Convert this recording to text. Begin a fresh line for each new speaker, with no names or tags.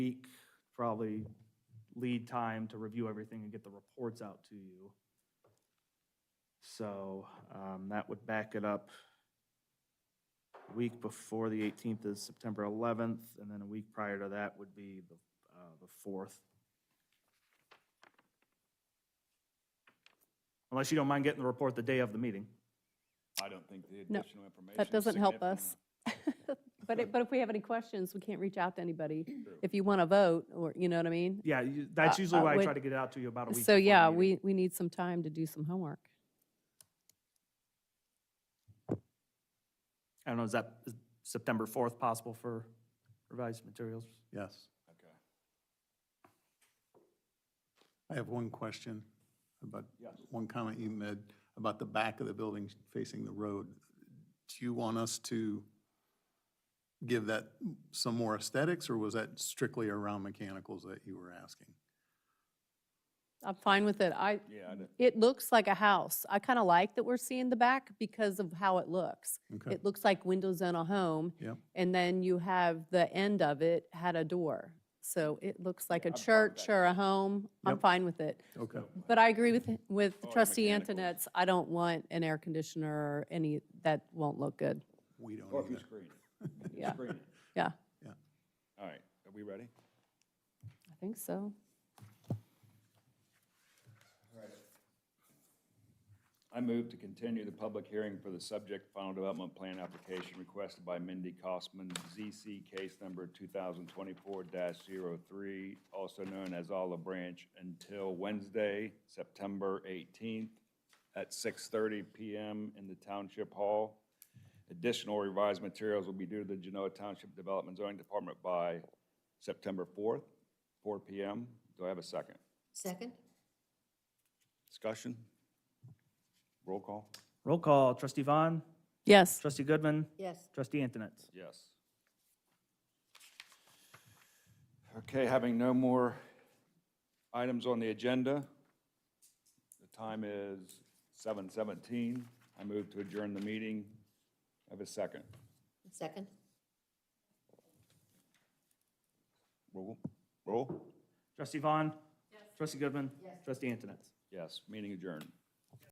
week, probably lead time to review everything and get the reports out to you. So um, that would back it up. Week before the 18th is September 11th, and then a week prior to that would be the uh, the 4th. Unless you don't mind getting the report the day of the meeting.
I don't think the
No,
additional information.
That
is
doesn't help
significant
us. But it, but if we have any questions, we can't reach out to anybody.
True.
If you want to vote, or, you know what I mean?
Yeah, you- that's
Uh,
usually
uh,
why I
wait-
try to get it out to you about a week. before
So
the
yeah,
meeting.
we, we need some time to do some homework.
I don't know, is that is September 4th possible for revised materials?
Yes.
enough. Okay.
I have one question about,
Yes.
one comment you made about the back of the building facing the road. Do you want us to give that some more aesthetics, or was that strictly around mechanicals that you were asking?
I'm fine with it. I,
Yeah, I don't-
it looks like a house. I kind of like that we're seeing the back because of how it looks.
Okay,
It looks like windows on a home.
Yep.
And then you have the end of it had a door. So it looks like
Yeah,
a
I'm fine with
church
that.
or a home. I'm
Yep.
fine with it.
okay,
But I agree with, with
Or
trustee
mechanicals.
Antonette's, I don't want an air conditioner or any, that won't look good.
we don't
Or if you
either.
screen it. If you
Yeah.
Screen it.
Yeah, I
All right, are we ready?
think so.
I move to continue the public hearing for the subject final development plan application requested by Mindy Kosman, ZC case number 2024-03, also known as Olive Branch, until Wednesday, September 18th at 6:30 PM in the Township Hall. Additional revised materials will be due to the Genoa Township Development Zoning Department by September 4th, 4 PM. Do I have a second?
Second?
Discussion? Roll call?
Roll call, trustee Vaughn,
Yes,
trustee Goodman,
Yes.
trustee Antonetts.
Yes. Okay, having no more items on the agenda, the time is 7:17. I move to adjourn the meeting. Have a second.
Second?
Roll, roll?
Trustee Vaughn. Trustee Goodman. Trustee Antonetts.
Yes, meeting adjourned.